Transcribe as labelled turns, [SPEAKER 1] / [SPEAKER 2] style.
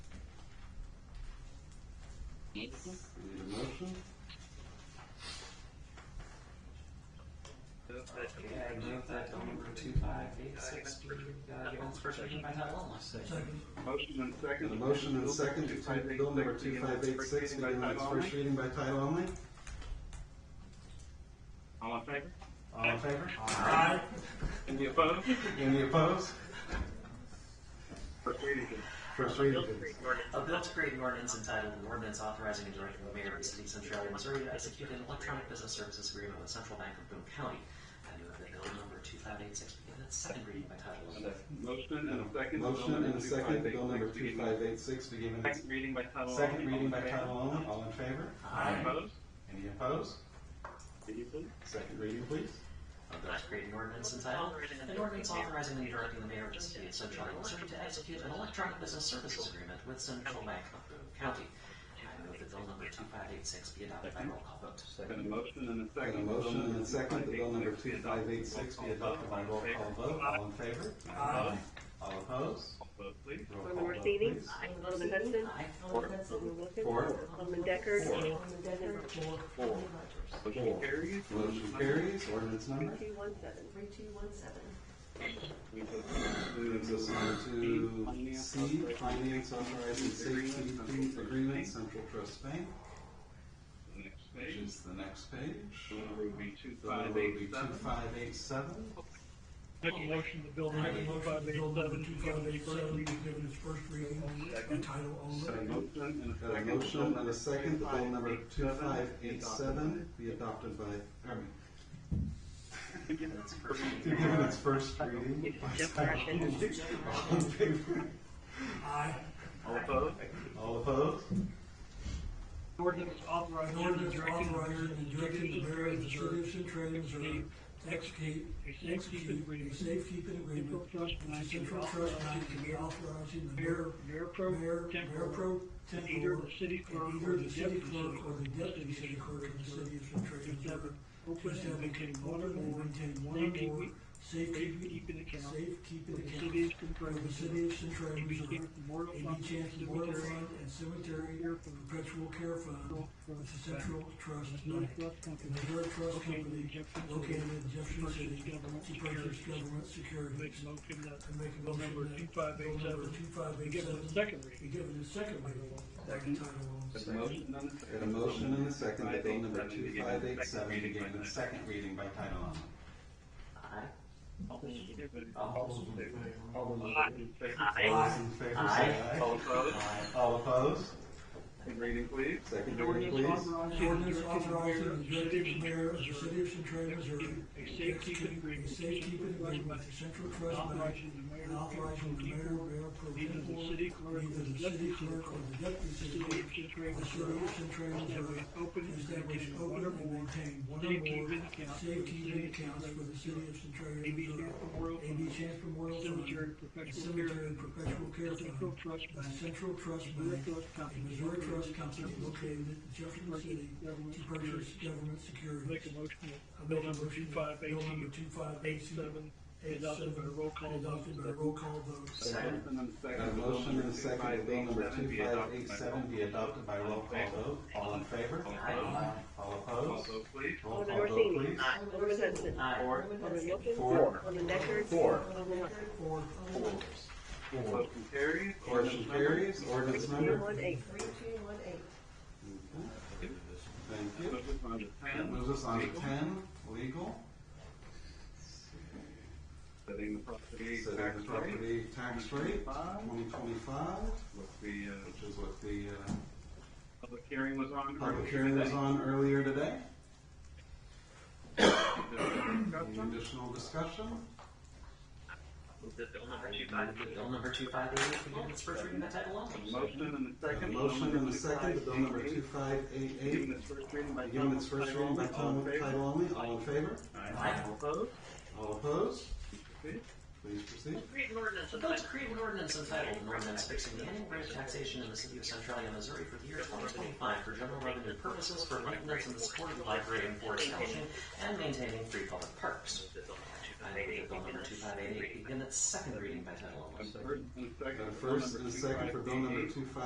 [SPEAKER 1] Motion?
[SPEAKER 2] Need a motion?
[SPEAKER 3] Move that the
[SPEAKER 4] Okay, I move that bill number two five eight six be, uh, given its first reading by title only.
[SPEAKER 3] Motion and second.
[SPEAKER 2] And a motion and a second to take bill number two five eight six, be given its first reading by title only.
[SPEAKER 3] All in favor?
[SPEAKER 2] All in favor?
[SPEAKER 3] Any opposed?
[SPEAKER 2] Any opposed?
[SPEAKER 3] First reading.
[SPEAKER 2] First
[SPEAKER 4] A
[SPEAKER 2] reading,
[SPEAKER 4] bill to
[SPEAKER 2] please.
[SPEAKER 4] create an ordinance- a bill to create an ordinance entitled an ordinance authorizing and directing the mayor of the city of Centralia, Missouri to execute an electronic business services agreement with Central Bank of Boone County. I move that bill number two five eight six be given its second reading by title only.
[SPEAKER 3] Motion and a second.
[SPEAKER 2] Motion and a second, bill number two five eight six, be given its
[SPEAKER 3] Second reading by title.
[SPEAKER 2] second
[SPEAKER 3] only.
[SPEAKER 2] reading by title only. All in favor?
[SPEAKER 3] Any opposed?
[SPEAKER 2] Any opposed?
[SPEAKER 3] Any opposed?
[SPEAKER 2] Second reading, please.
[SPEAKER 4] A bill to create an ordinance entitled an ordinance authorizing and directing the mayor of the city of Centralia, Missouri to execute an electronic business services agreement with Central Bank of Boone County. I move that bill number two five eight six be adopted by roll call vote.
[SPEAKER 3] Got a motion and a
[SPEAKER 2] Got a
[SPEAKER 3] second.
[SPEAKER 2] motion and a second, that bill number two five eight six be adopted by roll call vote. All in favor? Aye. All opposed?
[SPEAKER 3] Vote please.
[SPEAKER 2] Roll call
[SPEAKER 5] Alderman
[SPEAKER 2] vote,
[SPEAKER 5] Rashidi?
[SPEAKER 2] please.
[SPEAKER 5] Alderman Hudson?
[SPEAKER 4] Aye.
[SPEAKER 5] Alderman Hudson? Wilkins?
[SPEAKER 2] Four.
[SPEAKER 5] Alderman Deckard?
[SPEAKER 2] Four.
[SPEAKER 5] Alderman Deckard?
[SPEAKER 3] Four. Motion carries.
[SPEAKER 2] Motion carries, ordinance number.
[SPEAKER 5] Two one seven. Three two one seven.
[SPEAKER 3] We vote.
[SPEAKER 2] Moves us on to C, Finance Authorizing Safety Fleet Agreement, Central Trust Bank,
[SPEAKER 3] The Next
[SPEAKER 2] which
[SPEAKER 3] page.
[SPEAKER 2] is the next page.
[SPEAKER 3] Bill number will be two
[SPEAKER 2] The
[SPEAKER 3] five
[SPEAKER 2] number will be
[SPEAKER 3] eight
[SPEAKER 2] two
[SPEAKER 3] seven.
[SPEAKER 2] five eight seven.
[SPEAKER 6] Make a motion to bill number two five eight seven, two five eight seven, be given its first reading by title only.
[SPEAKER 3] Got a motion and a
[SPEAKER 2] Got a
[SPEAKER 3] second.
[SPEAKER 2] motion and a second, that bill number two five eight seven be adopted by, I mean,
[SPEAKER 4] Ordinance first reading.
[SPEAKER 2] to give it its first reading. by title only. All in favor?
[SPEAKER 6] Aye.
[SPEAKER 3] All opposed?
[SPEAKER 2] All opposed?
[SPEAKER 3] Ordinance authorizing.
[SPEAKER 6] An ordinance authorizing and directing the mayor of the city of Centralia, Missouri, to execute, execute a safekeeping agreement with the Central Trust Bank and be authorizing the mayor,
[SPEAKER 7] Mayor Pro
[SPEAKER 6] mayor, mayor pro
[SPEAKER 7] and
[SPEAKER 6] tempore,
[SPEAKER 7] either the city clerk
[SPEAKER 6] and
[SPEAKER 7] or
[SPEAKER 6] either
[SPEAKER 7] the
[SPEAKER 6] the city
[SPEAKER 7] deputy city
[SPEAKER 6] clerk or the deputy city clerk of the city of Centralia, Missouri, to
[SPEAKER 7] open and
[SPEAKER 6] establish
[SPEAKER 7] maintain
[SPEAKER 6] one
[SPEAKER 7] one
[SPEAKER 6] or
[SPEAKER 7] or
[SPEAKER 6] more,
[SPEAKER 7] more
[SPEAKER 6] maintain one or more
[SPEAKER 7] safekeeping
[SPEAKER 6] safekeeping,
[SPEAKER 7] accounts
[SPEAKER 6] safekeeping
[SPEAKER 7] for the
[SPEAKER 6] accounts for the
[SPEAKER 7] city of Centralia,
[SPEAKER 6] city of Centralia,
[SPEAKER 7] and be
[SPEAKER 6] Missouri,
[SPEAKER 7] taken memorial
[SPEAKER 6] and be
[SPEAKER 7] fund,
[SPEAKER 6] taken memorial
[SPEAKER 7] cemetery,
[SPEAKER 6] fund and cemetery perpetual care fund with the Central Trust Bank and the Missouri Trust Company located in Jefferson City to purchase government
[SPEAKER 7] Make
[SPEAKER 6] securities.
[SPEAKER 7] a motion that
[SPEAKER 6] And make a
[SPEAKER 7] bill
[SPEAKER 6] motion
[SPEAKER 7] number
[SPEAKER 6] that
[SPEAKER 7] two five
[SPEAKER 6] bill
[SPEAKER 7] eight
[SPEAKER 6] number
[SPEAKER 7] seven,
[SPEAKER 6] two five
[SPEAKER 7] be
[SPEAKER 6] eight
[SPEAKER 7] given
[SPEAKER 6] seven
[SPEAKER 7] a second
[SPEAKER 6] be
[SPEAKER 7] reading.
[SPEAKER 6] given its second reading by title only.
[SPEAKER 3] Got a motion and
[SPEAKER 2] Got a motion and
[SPEAKER 3] a second.
[SPEAKER 2] a second, that bill number two five eight seven be given its second reading by title only.
[SPEAKER 4] Aye.
[SPEAKER 3] All those in favor?
[SPEAKER 4] All
[SPEAKER 2] All those in favor say
[SPEAKER 4] Aye.
[SPEAKER 2] aye.
[SPEAKER 3] All opposed?
[SPEAKER 2] All opposed?
[SPEAKER 3] Second reading, please.
[SPEAKER 2] Second reading,
[SPEAKER 7] Ordinance
[SPEAKER 2] please.
[SPEAKER 7] authorizing and
[SPEAKER 6] Ordinance
[SPEAKER 7] directing the mayor
[SPEAKER 6] authorizing
[SPEAKER 7] of
[SPEAKER 6] the
[SPEAKER 7] the city of
[SPEAKER 6] executive mayor of the city of Centralia,
[SPEAKER 7] Centralia, Missouri
[SPEAKER 6] Missouri.
[SPEAKER 7] A safekeeping agreement.
[SPEAKER 6] A safekeeping agreement with the Central Trust Bank.
[SPEAKER 7] Authorizing the mayor.
[SPEAKER 6] And authorizing the mayor, mayor pro
[SPEAKER 7] Neither the
[SPEAKER 6] tempore,
[SPEAKER 7] city clerk
[SPEAKER 6] neither
[SPEAKER 7] nor
[SPEAKER 6] the
[SPEAKER 7] the
[SPEAKER 6] city
[SPEAKER 7] deputy
[SPEAKER 6] clerk or the deputy
[SPEAKER 7] the
[SPEAKER 6] city
[SPEAKER 7] city
[SPEAKER 6] clerk
[SPEAKER 7] of
[SPEAKER 6] of the city of
[SPEAKER 7] Centralia, Missouri,
[SPEAKER 6] Centralia, Missouri.
[SPEAKER 7] establish open and
[SPEAKER 6] Establish
[SPEAKER 7] maintain
[SPEAKER 6] open
[SPEAKER 7] one or
[SPEAKER 6] and
[SPEAKER 7] more
[SPEAKER 6] maintain one or
[SPEAKER 7] safekeeping
[SPEAKER 6] more
[SPEAKER 7] accounts for the
[SPEAKER 6] safekeeping accounts for the
[SPEAKER 7] city of
[SPEAKER 6] city of Centralia,
[SPEAKER 7] AB
[SPEAKER 6] Missouri. AB
[SPEAKER 7] Chance Memorial Fund,
[SPEAKER 6] Chance Memorial Fund.
[SPEAKER 7] Cemetery
[SPEAKER 6] and Cemetery
[SPEAKER 7] Perpetual Care
[SPEAKER 6] Perpetual Care Fund.
[SPEAKER 7] Central Trust
[SPEAKER 6] the
[SPEAKER 7] Bank,
[SPEAKER 6] Central Trust
[SPEAKER 7] Missouri
[SPEAKER 6] Bank.
[SPEAKER 7] Trust Company,
[SPEAKER 6] and Missouri Trust Company located in Jefferson
[SPEAKER 7] Purchase
[SPEAKER 6] City
[SPEAKER 7] government
[SPEAKER 6] to purchase
[SPEAKER 7] securities.
[SPEAKER 6] government securities.
[SPEAKER 7] Make a motion that
[SPEAKER 6] Bill
[SPEAKER 7] bill
[SPEAKER 6] number
[SPEAKER 7] number two five eight
[SPEAKER 6] Bill number
[SPEAKER 7] two
[SPEAKER 6] two five eight
[SPEAKER 7] eight
[SPEAKER 6] seven.
[SPEAKER 7] seven adopted by roll call vote.
[SPEAKER 6] Adopted by roll call vote.
[SPEAKER 3] Motion and a second.
[SPEAKER 2] Got a motion and a second, that bill number two five eight seven be adopted by roll call vote. All in favor?
[SPEAKER 3] Aye.
[SPEAKER 2] All
[SPEAKER 3] All
[SPEAKER 2] opposed?
[SPEAKER 3] vote please.
[SPEAKER 2] Roll
[SPEAKER 5] Alderman
[SPEAKER 2] call vote,
[SPEAKER 5] Rashidi?
[SPEAKER 2] please.
[SPEAKER 5] Alderman Hudson?
[SPEAKER 4] Aye.
[SPEAKER 5] Alderman Wilkins?
[SPEAKER 2] Four.
[SPEAKER 5] Alderman Deckard?
[SPEAKER 2] Four.
[SPEAKER 5] Alderman Hudson?
[SPEAKER 6] Four.
[SPEAKER 2] Four. Four.
[SPEAKER 3] Motion carries.
[SPEAKER 2] Motion carries, ordinance number.
[SPEAKER 5] Two one eight.
[SPEAKER 2] Okay. Thank you.
[SPEAKER 3] Motion on to
[SPEAKER 2] That
[SPEAKER 3] ten.
[SPEAKER 2] moves us on to ten, legal,
[SPEAKER 3] Setting the property
[SPEAKER 2] setting the
[SPEAKER 3] tax rate.
[SPEAKER 2] property tax rate, twenty twenty-five,
[SPEAKER 3] With the, uh,
[SPEAKER 2] which is what the, uh,
[SPEAKER 3] public hearing was on.
[SPEAKER 2] public hearing was on earlier today. Any
[SPEAKER 3] Discussion.
[SPEAKER 2] additional discussion?
[SPEAKER 3] Move that bill number two
[SPEAKER 4] I
[SPEAKER 3] five
[SPEAKER 4] move that bill number two five eight eight be given its first reading by title only.
[SPEAKER 3] Motion and a
[SPEAKER 2] Got a
[SPEAKER 3] second.
[SPEAKER 2] motion and a second, the bill number two five eight
[SPEAKER 3] Given
[SPEAKER 2] eight,
[SPEAKER 3] its first reading by
[SPEAKER 2] given its first reading by
[SPEAKER 3] All in
[SPEAKER 2] title
[SPEAKER 3] favor?
[SPEAKER 2] title only, all in favor?
[SPEAKER 4] Aye.
[SPEAKER 3] All opposed?
[SPEAKER 2] All opposed?
[SPEAKER 3] Okay.
[SPEAKER 2] Please proceed.
[SPEAKER 4] Create an ordinance. Bill to create an ordinance entitled, an ordinance fixing the annual rate of taxation in the city of Centralia, Missouri for the year twenty twenty-five for general revenue purposes for maintenance and the support of the library and for establishing and maintaining free public parks. I move that bill number two five eight eight be given its second reading by title only.
[SPEAKER 3] Got a first
[SPEAKER 2] Got a first
[SPEAKER 3] and a second.
[SPEAKER 2] and a second for bill number two five